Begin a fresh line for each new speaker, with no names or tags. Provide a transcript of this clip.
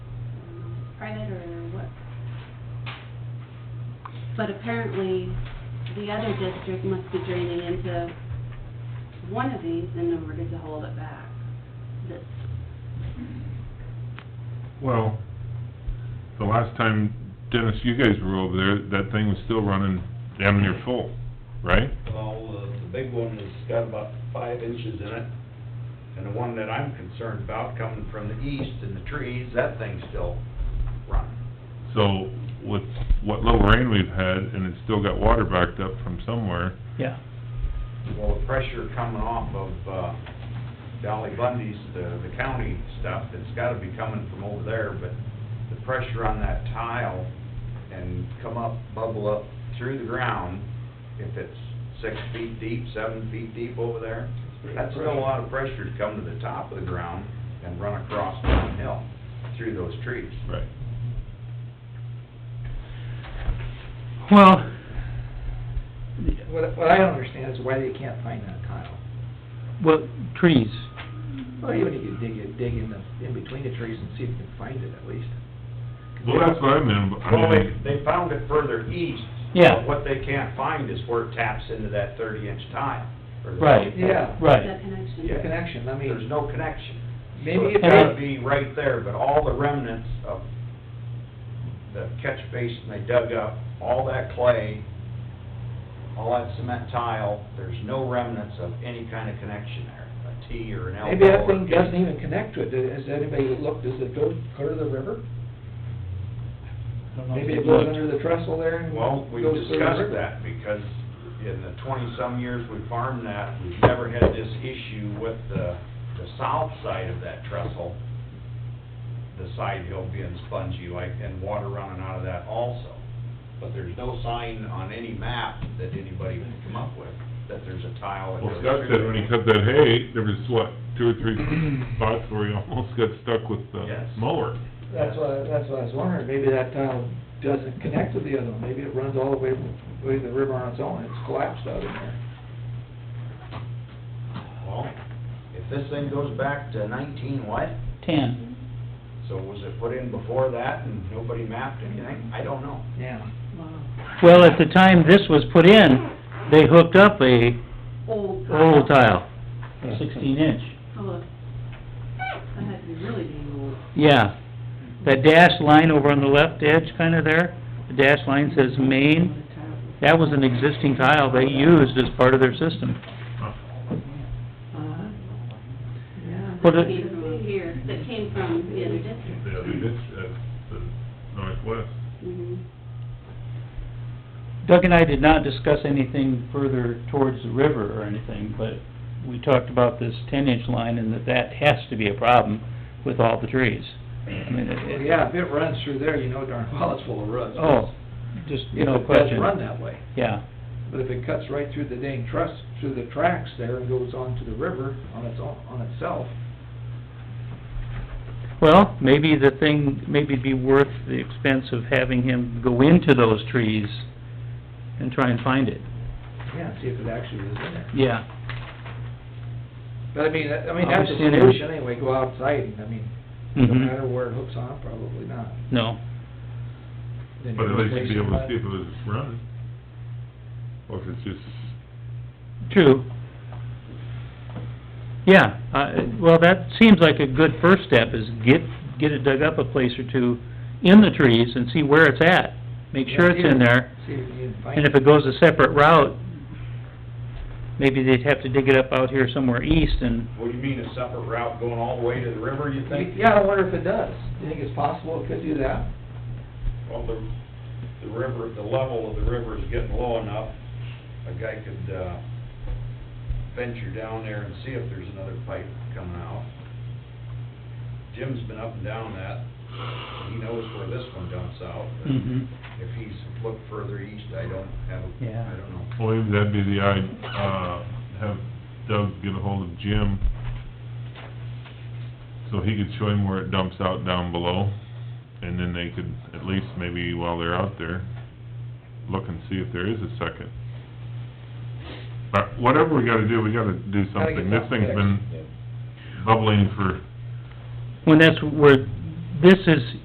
but apparently the other district must be draining into one of these in order to hold it back. This,
Well, the last time, Dennis, you guys were over there, that thing was still running damn near full, right?
Well, uh, the big one has got about five inches in it, and the one that I'm concerned about coming from the east and the trees, that thing's still running.
So with what little rain we've had, and it's still got water backed up from somewhere,
Yeah,
Well, the pressure coming off of, uh, Dolly Bundy's, the, the county stuff, it's gotta be coming from over there, but the pressure on that tile and come up, bubble up through the ground, if it's six feet deep, seven feet deep over there, that's still a lot of pressure to come to the top of the ground and run across downhill through those trees.
right?
well,
What, what I don't understand is why they can't find that tile.
well, trees,
Well, even if you dig, it- dig in the, in between the trees and see if you can find it at least.
Well, that's what I meant, but
Well,
I
they,
mean,
they found it further east.
Yeah.
but What they can't find is where it taps into that thirty-inch tile. or the-
Right.
Yeah,
right,
that connection.
the connection, I
There's
mean,
no connection.
maybe
So
if
It would
they,
be right there, but all the remnants of the catch basin they dug up, all that clay, all that cement tile, there's no remnants of any kind of connection there, a T or an L.
maybe that thing doesn't even connect to it. Has anybody looked, does it go, go to the river? Maybe it goes under the trestle there and
Well,
goes
we
through the river?
discussed that, because in the twenty-some years we farmed that, we've never had this issue with the, the south side of that trestle, the side hill being spongy like, and water running out of that also. But there's no sign on any map that anybody would come up with, that there's a tile that
well,
goes through.
Scott said when he cut that hay, there was what, two or three spots where he almost got stuck with the
Yes.
mower.
That's why, that's why I was wondering, maybe that tile doesn't connect to the other one, maybe it runs all the way, way to the river on its own, it's collapsed out in there.
Well, if this thing goes back to nineteen what,
Ten,
so was it put in before that and nobody mapped anything? I don't know.
Yeah.
Wow.
well, at the time this was put in, they hooked up a
Old. tile.
old tile, sixteen inch,
Oh, That had to be really being old.
yeah. That dashed line over on the left edge kinda there, the dashed line says main, that was an existing tile they used as part of their system.
Uh, Yeah,
Well,
that
the-
came from here, that came from the other district.
The other ditch, that's the northwest.
Mhm.
Doug and I did not discuss anything further towards the river or anything, but we talked about this ten-inch line and that that has to be a problem with all the trees. I mean,
Well,
it, it,
yeah, if it runs through there, you know darn well it's full of roots.
oh, just
If
no
it does
question.
run that way.
Yeah,
But if it cuts right through the dang truss, through the tracks there and goes on to the river on its own, on itself,
well, maybe the thing, maybe it'd be worth the expense of having him go into those trees and try and find it,
yeah, see if it actually is in there.
yeah.
But I mean, that- I mean, that's the
Obviously, it is.
solution anyway, go outside, and I mean, no
Mhm.
matter where it hooks on, probably not.
No,
Then
But at
you
least you'd be able to
replace
see if
it
it was running. Or if it's just,
true. Yeah, uh, well, that seems like a good first step, is get, get it dug up a place or two in the trees and see where it's at. Make sure
Yeah, see
it's in
if-
there,
See if you can find
and if it goes a separate route, maybe they'd have to dig it up out here somewhere east and,
What do you mean, a separate route going all the way to the river, you think?
Yeah, I wonder if it does. Do you think it's possible it could do that?
Well, the, the river, the level of the river is getting low enough, a guy could, uh, venture down there and see if there's another pipe coming out. Jim's been up and down that, he knows where this one dumps out, but
Mhm.
if he's looked further east, I don't have, a-
Yeah.
I don't know.
well, maybe that'd be the, I'd, uh, have Doug get a hold of Jim, so he could show him where it dumps out down below, and then they could, at least maybe while they're out there, look and see if there is a second. But whatever we gotta do, we gotta do
Gotta get
something. This
something
thing's been bubbling for
when that's where, this is